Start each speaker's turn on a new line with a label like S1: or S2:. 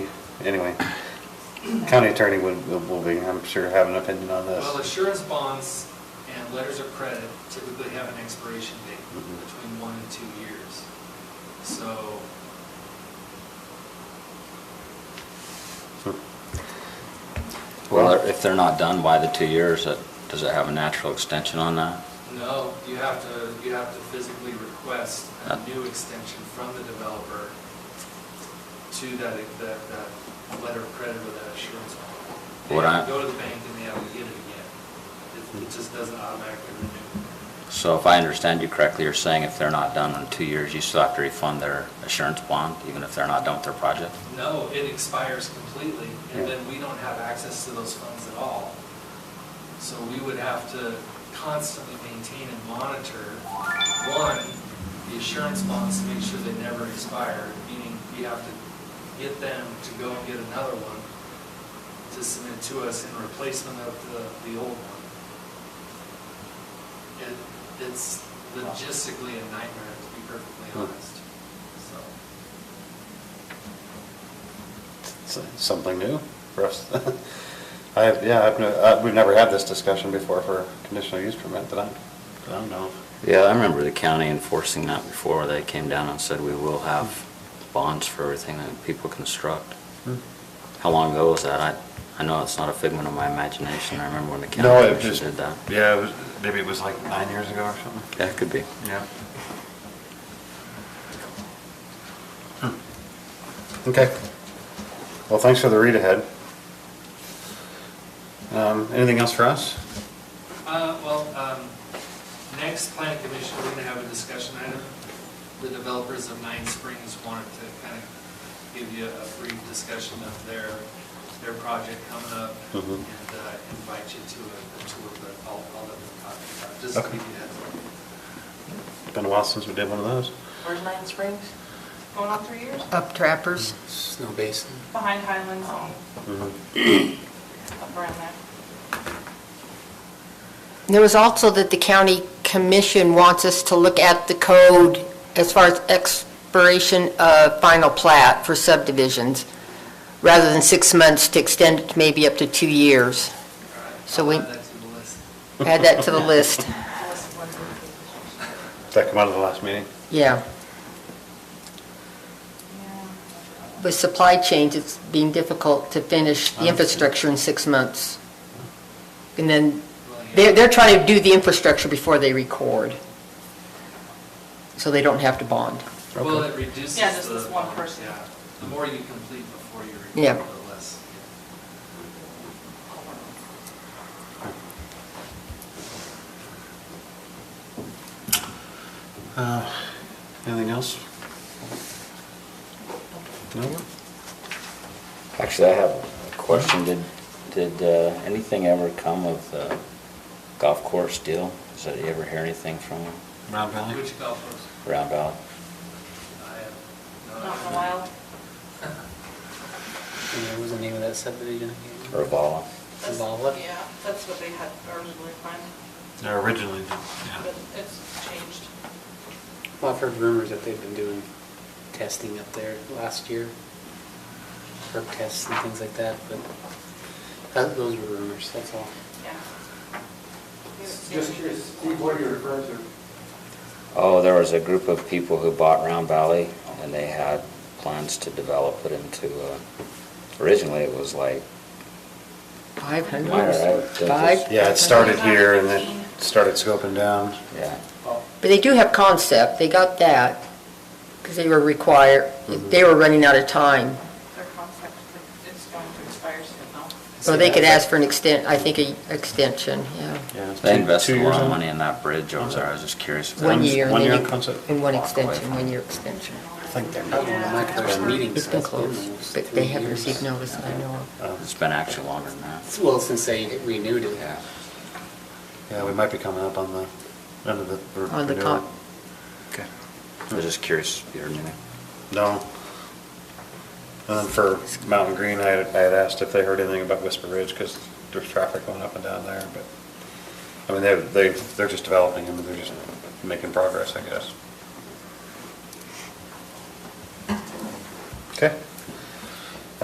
S1: anyway, county attorney would, will be, I'm sure, have an opinion on this.
S2: Well, assurance bonds and letters of credit typically have an expiration date
S3: Mm-hmm.
S1: Mhm.
S2: between one and two years. So
S3: Well, if they're not done by the two years, that- does it have a natural extension on that?
S2: No, you have to, you have to physically request a new extension from the developer to that, that, that letter of credit or that assurance bond. They
S3: What
S2: have to
S3: I-
S2: Go to the bank and they have to get it again. It, it just doesn't automatically renew.
S3: So if I understand you correctly, you're saying if they're not done in two years, you still have to refund their assurance bond, even if they're not done with their project?
S2: No, it expires completely and
S1: Yeah.
S2: then we don't have access to those funds at all. So we would have to constantly maintain and monitor, one, the assurance bonds to make sure they never expire, meaning we have to get them to go and get another one to submit to us in replacement of the, the old one. It, it's logistically a nightmare, to be perfectly honest, so.
S1: It's Something new for us. I have, yeah, I've, no- uh, we've never had this discussion before for conditional use permit, but I, I don't know.
S3: Yeah, I remember the county enforcing that before. They came down and said, we will have bonds for everything that people construct.
S1: Hmm.
S3: How long ago was that? I, I know it's not a figment of my imagination. I remember when the
S1: No,
S3: county
S1: it
S3: commission
S1: just,
S3: did that.
S1: yeah, it was, maybe it was like nine years ago or something.
S3: Yeah, it could be.
S1: Yeah. Okay. Well, thanks for the read ahead. Um, anything else for us?
S2: Uh, Well, um, next plan commission, we're going to have a discussion item. The developers of Nine Springs wanted to kind of give you a brief discussion of their, their project coming up and
S1: Mhm.
S2: uh, invite you to a a tour of the- all all that we're talking about, just to
S1: Okay.
S2: give you a heads up.
S1: Been a while since we did one of those.
S4: Where's Nine Springs? Going on three years?
S5: Up Trappers.
S6: Snow Basin.
S4: Behind Highlands and
S1: Mhm.
S4: up around there.
S5: There was also that the county commission wants us to look at the code as far as expiration of final plat for subdivisions, rather than six months to extend it to maybe up to two years.
S2: All right,
S5: So
S2: I'll
S5: we-
S2: add that to the list.
S5: Add that to the list.
S4: Unless one of the-
S1: Did that come out of the last meeting?
S5: Yeah.
S4: Yeah.
S5: With supply chains, it's being difficult to finish the infrastructure in six months. And then
S2: Well, yeah.
S5: They're, they're trying to do the infrastructure before they record, so they don't have to bond.
S2: Well, it reduces the.
S4: Yeah, just this one person.
S2: Yeah, the more you complete before you
S5: Yeah.
S2: record, the less.
S1: Uh, Anything else? No?
S3: Actually, I have a question. Did, did uh, anything ever come of the golf course deal? Is that, you ever hear anything from
S1: Round
S2: yeah.
S1: Valley?
S2: Which golf course?
S3: Round Valley?
S2: I have no
S4: Not in a
S2: idea.
S4: while.
S6: And what was the name of that subdivision again?
S3: Or Vala?
S4: That's-
S6: Zavala?
S4: Yeah, that's what they had originally planned,
S1: No, Originally,
S4: but it's changed.
S6: Well, I've heard rumors that they've been doing testing up there last year. Herb tests and things like that, but that, those were rumors, that's all.
S4: Yeah.
S7: Just curious, Steve, what are you referring to?
S3: Oh, there was a group of people who bought Round Valley, and they had plans to develop it into, uh, originally it was like,
S5: Five
S3: Minor, I
S5: hundred,
S3: would think
S5: five?
S3: it's-
S1: Yeah, it started here and then started scoping down.
S3: yeah,
S7: Oh.
S5: But they do have concept, they got that, because they were required, they were running out of time.
S4: Their concept, it's going to expire soon now.
S5: So they could ask for an extent, I think, a extension, yeah.
S1: Yeah, it's
S3: they
S1: two-
S3: invested
S1: two
S3: a
S1: years
S3: lot of
S1: in?
S3: money in that bridge over there. I was just curious. if that
S5: One
S3: was-
S5: year. and
S1: one
S5: then
S1: year
S5: you-
S1: concept?
S5: And one
S3: Walk away
S5: extension,
S3: from
S5: one
S3: it.
S5: year extension.
S6: I think they're
S4: not gonna like
S6: There's meetings
S5: It's been
S6: that's been
S5: closed,
S6: almost
S5: but
S6: three
S5: they haven't
S6: years.
S5: received notice that I know of.
S1: Oh,
S3: It's been actually longer than that.
S6: Well, since they renewed it.
S1: Yeah, we might be coming up on the, end of the. re-
S5: On the
S1: renewal.
S5: con-
S3: Okay. I was just curious if you heard anything.
S1: No. And then for Mountain Green, I had, I had asked if they heard anything about Whisper Ridge, because there's traffic going up and down there, but, I mean, they, they, they're just developing, and they're just making progress, I guess. Okay.